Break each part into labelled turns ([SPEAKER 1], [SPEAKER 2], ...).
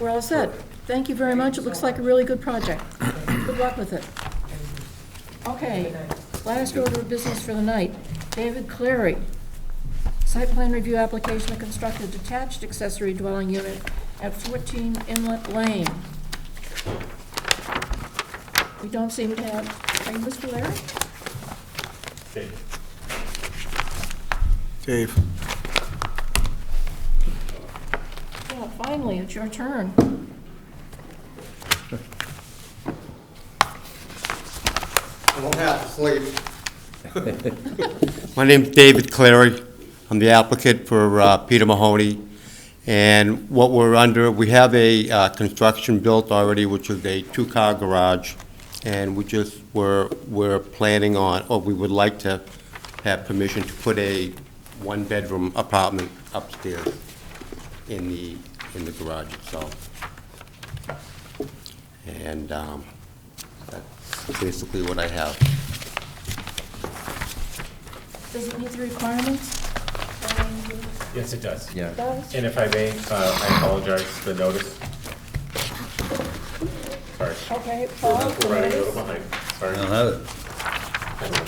[SPEAKER 1] We're all set. Thank you very much. It looks like a really good project. Good luck with it. Okay, last order of business for the night. David Clary. Site plan review application to construct a detached accessory dwelling unit at 14 Inlet Lane. We don't seem to have, are you Mr. Larry?
[SPEAKER 2] Dave.
[SPEAKER 1] Yeah, finally, it's your turn.
[SPEAKER 3] I won't have to sleep. My name's David Clary. I'm the applicant for uh, Peter Mahoney. And what we're under, we have a uh, construction built already, which is a two-car garage. And we just, were we're planning on, or we would like to have permission to put a one-bedroom apartment upstairs in the, in the garage itself. And um, that's basically what I have.
[SPEAKER 1] Does it meet the requirements?
[SPEAKER 4] Yes, it does.
[SPEAKER 1] It does?
[SPEAKER 4] And if I may, uh, I apologize for the notice. Sorry.
[SPEAKER 1] Okay, Paul,
[SPEAKER 4] We're running a little behind. Sorry.
[SPEAKER 5] I'll have it.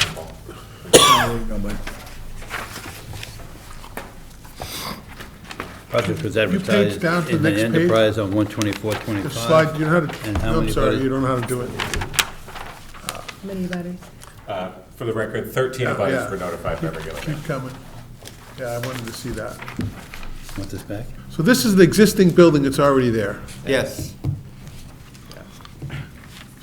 [SPEAKER 5] Project was advertised
[SPEAKER 6] down to the
[SPEAKER 5] in the
[SPEAKER 6] next page.
[SPEAKER 5] enterprise on one
[SPEAKER 6] The slide,
[SPEAKER 5] 12425.
[SPEAKER 6] you know how to,
[SPEAKER 5] And how
[SPEAKER 6] I'm
[SPEAKER 5] many
[SPEAKER 6] sorry,
[SPEAKER 5] voted?
[SPEAKER 6] you don't know how to do it.
[SPEAKER 1] many letters?
[SPEAKER 4] Uh, For the record, 13 of us
[SPEAKER 6] Yeah.
[SPEAKER 4] were notified by regulator.
[SPEAKER 6] Keep coming. Yeah, I wanted to see that.
[SPEAKER 5] Want this back?
[SPEAKER 6] So this is the existing building that's already there.
[SPEAKER 3] Yes.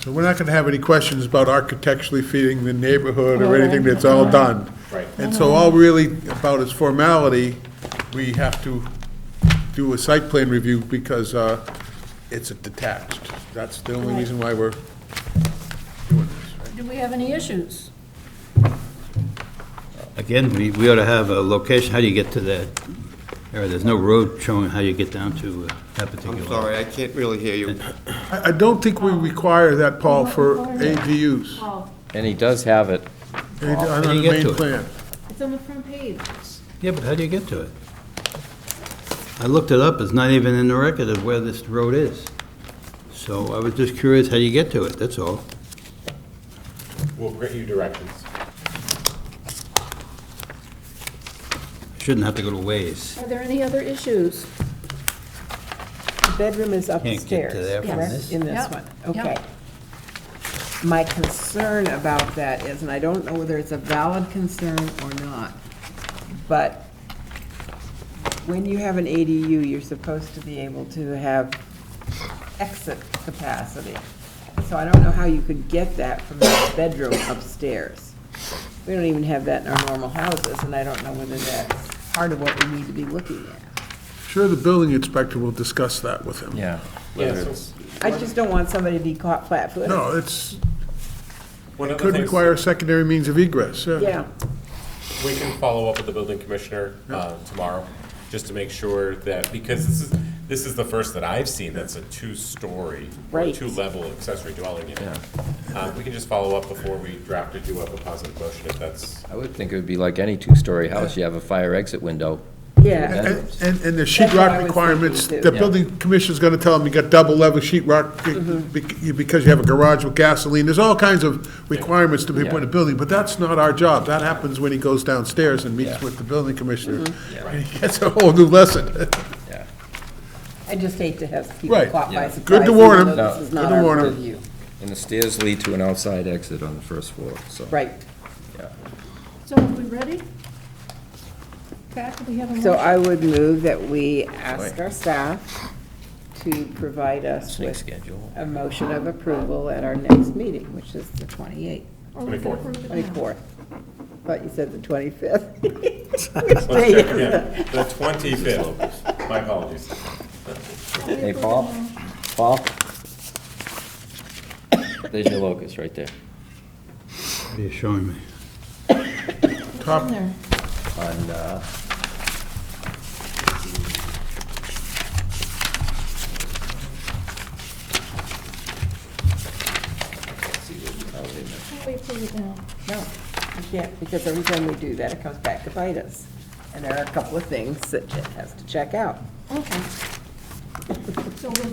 [SPEAKER 6] So we're not going to have any questions about architecturally feeding the neighborhood or
[SPEAKER 1] Well,
[SPEAKER 6] anything that's all done.
[SPEAKER 4] Right.
[SPEAKER 6] And so all really about is formality, we have to do a site plan review because uh, it's a detached. That's the only
[SPEAKER 1] Right.
[SPEAKER 6] reason why we're doing this, right?
[SPEAKER 1] Do we have any issues?
[SPEAKER 5] Again, we, we ought to have a location, how do you get to that? area? there's no road showing how you get down to uh, that particular.
[SPEAKER 3] I'm sorry, I can't really hear you.
[SPEAKER 6] I I don't think we require that, Paul, for ADUs.
[SPEAKER 1] Paul,
[SPEAKER 7] And he does have it.
[SPEAKER 6] On
[SPEAKER 5] How do
[SPEAKER 6] the
[SPEAKER 5] you get to
[SPEAKER 6] main
[SPEAKER 5] it?
[SPEAKER 6] plan.
[SPEAKER 1] it's on the front page.
[SPEAKER 5] Yeah, but how do you get to it? I looked it up, it's not even in the record of where this road is. So I was just curious how you get to it, that's all.
[SPEAKER 4] We'll grant you directions.
[SPEAKER 5] Shouldn't have to go to Waze.
[SPEAKER 1] Are there any other issues?
[SPEAKER 8] The bedroom is
[SPEAKER 5] get
[SPEAKER 8] upstairs.
[SPEAKER 5] to there from
[SPEAKER 8] correct?
[SPEAKER 5] this?
[SPEAKER 8] In this
[SPEAKER 1] Yep,
[SPEAKER 8] one,
[SPEAKER 1] yep.
[SPEAKER 8] okay. My concern about that is, and I don't know whether it's a valid concern or not, but when you have an ADU, you're supposed to be able to have exit capacity. So I don't know how you could get that from the bedroom upstairs. We don't even have that in our normal houses, and I don't know whether that's part of what we need to be looking at.
[SPEAKER 6] Sure, the building inspector will discuss that with him.
[SPEAKER 7] Yeah.
[SPEAKER 4] Yeah,
[SPEAKER 7] Whether
[SPEAKER 4] so
[SPEAKER 7] it's-
[SPEAKER 8] I just don't want somebody to be caught flat-footed.
[SPEAKER 6] No, it's,
[SPEAKER 4] one of the
[SPEAKER 6] could
[SPEAKER 4] things-
[SPEAKER 6] require secondary means of egress, yeah.
[SPEAKER 8] Yeah,
[SPEAKER 4] We can follow up with the building commissioner uh, tomorrow, just to make sure that, because this is, this is the first that I've seen that's a two-story, or
[SPEAKER 8] Right.
[SPEAKER 4] two-level accessory dwelling unit. Uh, We can just follow up before we draft or do up a positive motion if that's,
[SPEAKER 7] I would think it would be like any two-story house, you have a fire exit window.
[SPEAKER 8] yeah.
[SPEAKER 6] And, and- and the sheet
[SPEAKER 8] That's what I
[SPEAKER 6] rock
[SPEAKER 8] was
[SPEAKER 6] requirements,
[SPEAKER 8] thinking,
[SPEAKER 6] the
[SPEAKER 8] too.
[SPEAKER 6] building commissioner's gonna tell him you got double level sheet rock
[SPEAKER 8] Mm-hmm.
[SPEAKER 6] bec- you- because you have a garage with gasoline, there's all kinds of requirements to be put in a
[SPEAKER 7] Yeah.
[SPEAKER 6] building, but that's not our job, that happens when he goes downstairs and meets
[SPEAKER 7] Yeah.
[SPEAKER 6] with the building commissioner.
[SPEAKER 8] Mm-hmm.
[SPEAKER 6] And he gets a whole new lesson.
[SPEAKER 7] Yeah.
[SPEAKER 8] I just hate to have people
[SPEAKER 6] Right.
[SPEAKER 8] caught by
[SPEAKER 7] Yeah.
[SPEAKER 8] surprise.
[SPEAKER 6] Good to warn 'em.
[SPEAKER 8] even though This is
[SPEAKER 6] Good
[SPEAKER 8] not
[SPEAKER 6] to warn
[SPEAKER 8] our
[SPEAKER 6] 'em.
[SPEAKER 8] purview.
[SPEAKER 7] And the stairs lead to an outside exit on the first floor, so.
[SPEAKER 8] Right.
[SPEAKER 1] So are we ready? Pat, do we have a motion?
[SPEAKER 8] So I would move that we ask our staff to provide us with
[SPEAKER 7] schedule.
[SPEAKER 8] a motion of approval at our next meeting, which is the 28th,
[SPEAKER 7] uh,
[SPEAKER 1] Or we can
[SPEAKER 4] 24.
[SPEAKER 1] approve it now?
[SPEAKER 8] 24th. Thought you said the 25th.
[SPEAKER 4] let's check again. The twenty-fifth, my apologies.
[SPEAKER 7] Hey, Paul? Paul? There's your locus right there.
[SPEAKER 5] What are you showing me?
[SPEAKER 1] In
[SPEAKER 6] Top,
[SPEAKER 1] there.
[SPEAKER 7] On, uh,
[SPEAKER 1] Can't we approve it now?
[SPEAKER 8] No, you can't, because every time we do that, it comes back to bite us. And there are a couple of things that it has to check out.
[SPEAKER 1] Okay. So we'll